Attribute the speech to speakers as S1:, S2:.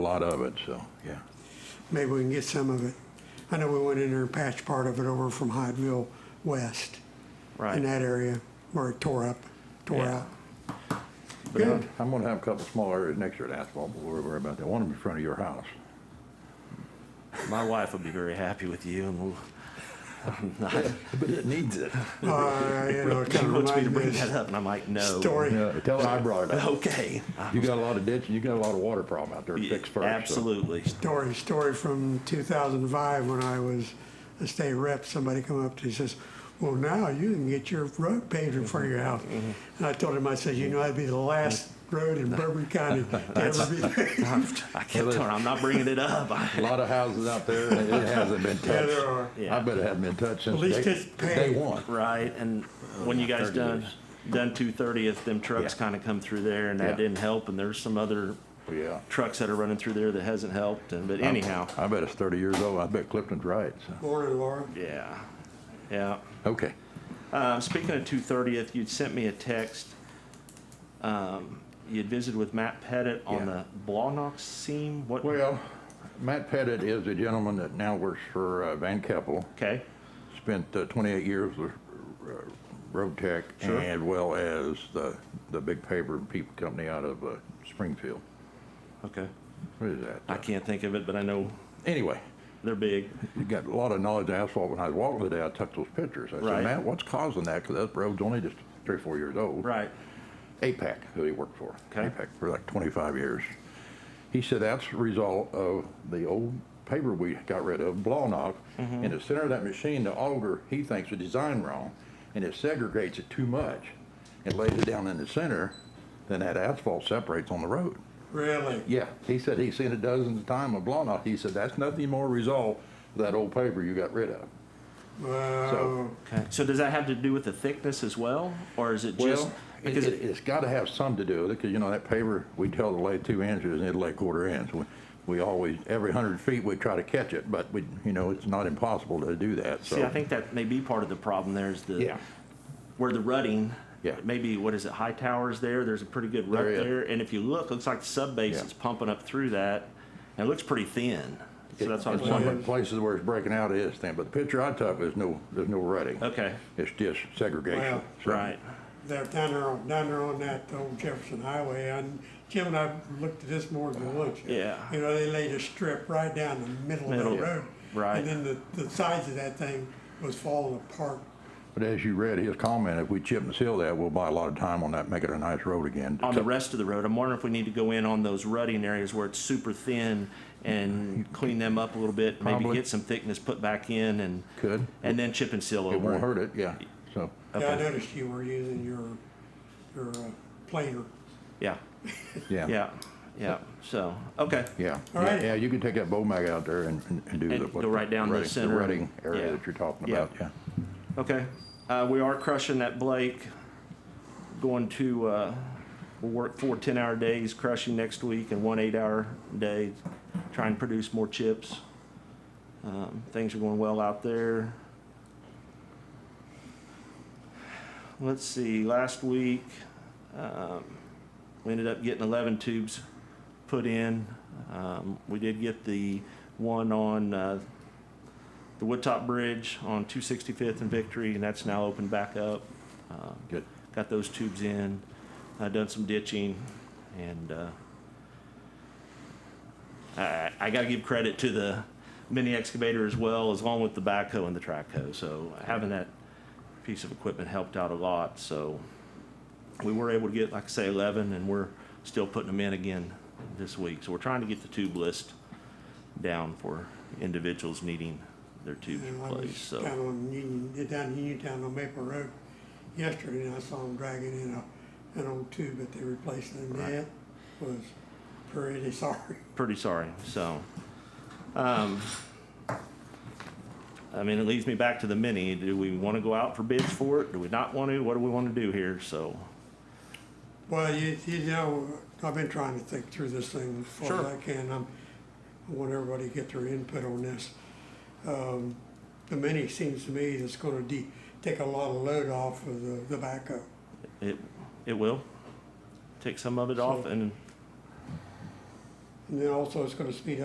S1: a lot of it, so, yeah.
S2: Maybe we can get some of it. I know we went in there and patched part of it over from Hyattville West in
S3: Right.
S2: that area where it tore up, tore
S3: Yeah.
S2: out.
S1: But
S2: Good.
S1: I'm gonna have a couple small areas next year to asphalt, but we're worried about that. One of them in front of your house.
S3: My wife would be very happy with you and we'll,
S1: But it needs it.
S2: Uh, you know, it
S3: she
S2: kind of
S3: wants me
S2: reminds me
S3: to bring
S2: of
S3: that
S2: this
S3: up and I'm like, no.
S2: story.
S1: Yeah, tell her I brought it up.
S3: Okay.
S1: You got a lot of ditch, you got a lot of water problem out there to fix first. so-
S3: Absolutely.
S2: story, story from 2005 when I was a state rep. Somebody come up to me says, "Well, now you can get your road paved in front of your house."
S3: Mm-hmm.
S2: And I told him, I said, "You know, that'd be the last road in Bourbon County to ever be paved."
S3: I kept telling her, I'm not bringing it up. I-
S1: A lot of houses out there, and it hasn't been touched.
S2: Yeah, there are.
S1: I bet it hasn't been touched since
S2: At least
S1: day,
S2: it's paved.
S1: day one.
S3: Right, and when you guys
S1: 30
S3: done,
S1: years.
S3: done two thirtieth, them trucks
S1: Yeah.
S3: kinda come through there and
S1: Yeah.
S3: that didn't help, and there's some other
S1: Yeah.
S3: trucks that are running through there that hasn't helped, and, but anyhow,
S1: I bet it's thirty years old. I bet Clifton's right, so,
S2: Morning, Laura.
S3: yeah, yeah.
S1: okay.
S3: Um, speaking of two thirtieth, you'd sent me a text. Um, you'd visited with Matt Pettit
S1: Yeah.
S3: on the Blonox seam, what?
S1: Well, Matt Pettit is a gentleman that now works for uh, Van Keppel.
S3: Okay,
S1: Spent uh, 28 years with uh, Road Tech
S3: Sure.
S1: and well as the, the big paper and people company out of uh, Springfield.
S3: okay.
S1: What is that?
S3: I can't think of it, but I know
S1: Anyway,
S3: they're big.
S1: you got a lot of knowledge of asphalt. When I was walking today, I took those pictures. I
S3: Right.
S1: said, Matt, what's causing that? Because that road's only just three, or four years old.
S3: Right,
S1: APAC, who he worked for.
S3: Okay.
S1: APAC for like 25 years. He said that's the result of the old paper we got rid of, Blawnock. In the center of that machine, the auger, he thinks the design wrong, and it segregates it too much and lays it down in the center, then that asphalt separates on the road.
S2: Really?
S1: Yeah, he said he's seen it dozens of times with Blawnock. He said that's nothing more result of that old paper you got rid of.
S2: Wow.
S3: okay. So does that have to do with the thickness as well, or is it just?
S1: Well, it,
S3: because
S1: it, it's got to have some to do with it, because you know, that paver, we tell it to lay two inches and it'll lay quarter inch. We- We always, every hundred feet, we try to catch it, but we, you know, it's not impossible to do that, so.
S3: See, I think that may be part of the problem there is the,
S1: Yeah.
S3: where the rutting,
S1: Yeah.
S3: maybe, what is it, High Towers there, there's a pretty good rut
S1: There is.
S3: there, and if you look, looks like the sub base
S1: Yeah.
S3: is pumping up through that, and it looks pretty thin, so that's what I
S1: In
S3: was
S1: some
S3: wondering,
S2: wondering.
S1: places where it's breaking out, it is thin, but the picture I took, there's no, there's no rutting.
S3: okay,
S1: It's just segregation.
S2: Wow.
S1: so-
S3: right,
S2: They're down there, on- down there on that old Jefferson Highway, and Jim and I looked at this more than once.
S3: Yeah.
S2: You know, they laid a strip right down the middle of
S3: Middle,
S2: the road.
S3: right.
S2: And then the, the sides of that thing was falling apart.
S1: But as you read his comment, if we chip and seal that, we'll buy a lot of time on that, make it a nice road again.
S3: on the rest of the road, I'm wondering if we need to go in on those rutting areas where it's super thin and clean them up a little bit, maybe
S1: Probably.
S3: get some thickness put back in and.
S1: Could.
S3: And then chip and seal over.
S1: It won't hurt it, yeah, so.
S2: Yeah, I
S3: Okay.
S2: noticed you were using your, your uh, planer.
S3: Yeah, yeah, yeah, so, okay.
S1: Yeah.
S2: All
S1: Yeah,
S2: right.
S1: Yeah, you can take that bow mag out there and, and- and do the.
S3: And
S1: what
S3: go right down the
S1: rutting-
S3: center.
S1: rutting area
S3: Yeah.
S1: that you're talking
S3: Yeah.
S1: about, yeah.
S3: Okay, uh, we are crushing that Blake, going to, uh, we'll work four ten-hour days crushing next week and one eight-hour day, try and produce more chips. Um, things are going well out there. Let's see, last week, um, we ended up getting eleven tubes put in. Um, we did get the one on, uh, the Woodtop Bridge on 265th and Victory, and that's now opened back up. Um,
S1: Good.
S3: Got those tubes in, uh, done some ditching, and uh, I, I got to give credit to the mini excavator as well, as long with the backhoe and the track hoe. So having that piece of equipment helped out a lot. So we were able to get, like I say, 11, and we're still putting them in again this week. So we're trying to get the tube list down for individuals needing their tubes
S2: And I was
S3: replaced. So.
S2: Down on Union, down in Uniontown on Maple Road yesterday, and I saw them dragging in a, an old tube that they replaced, and that was pretty sorry.
S3: pretty sorry, so. um, I mean, it leads me back to the mini. Do we want to go out for bids for it? Do we not want to? What do we want to do here? So,
S2: Well, you, you know, I've been trying to think through this thing as far as
S3: Sure.
S2: I can. I'm, I want everybody to get their input on this. Um, the mini seems to me that's gonna de, take a lot of load off of the, the backhoe.
S3: it, it will. Take some of it off and,
S2: And then also it's gonna speed up.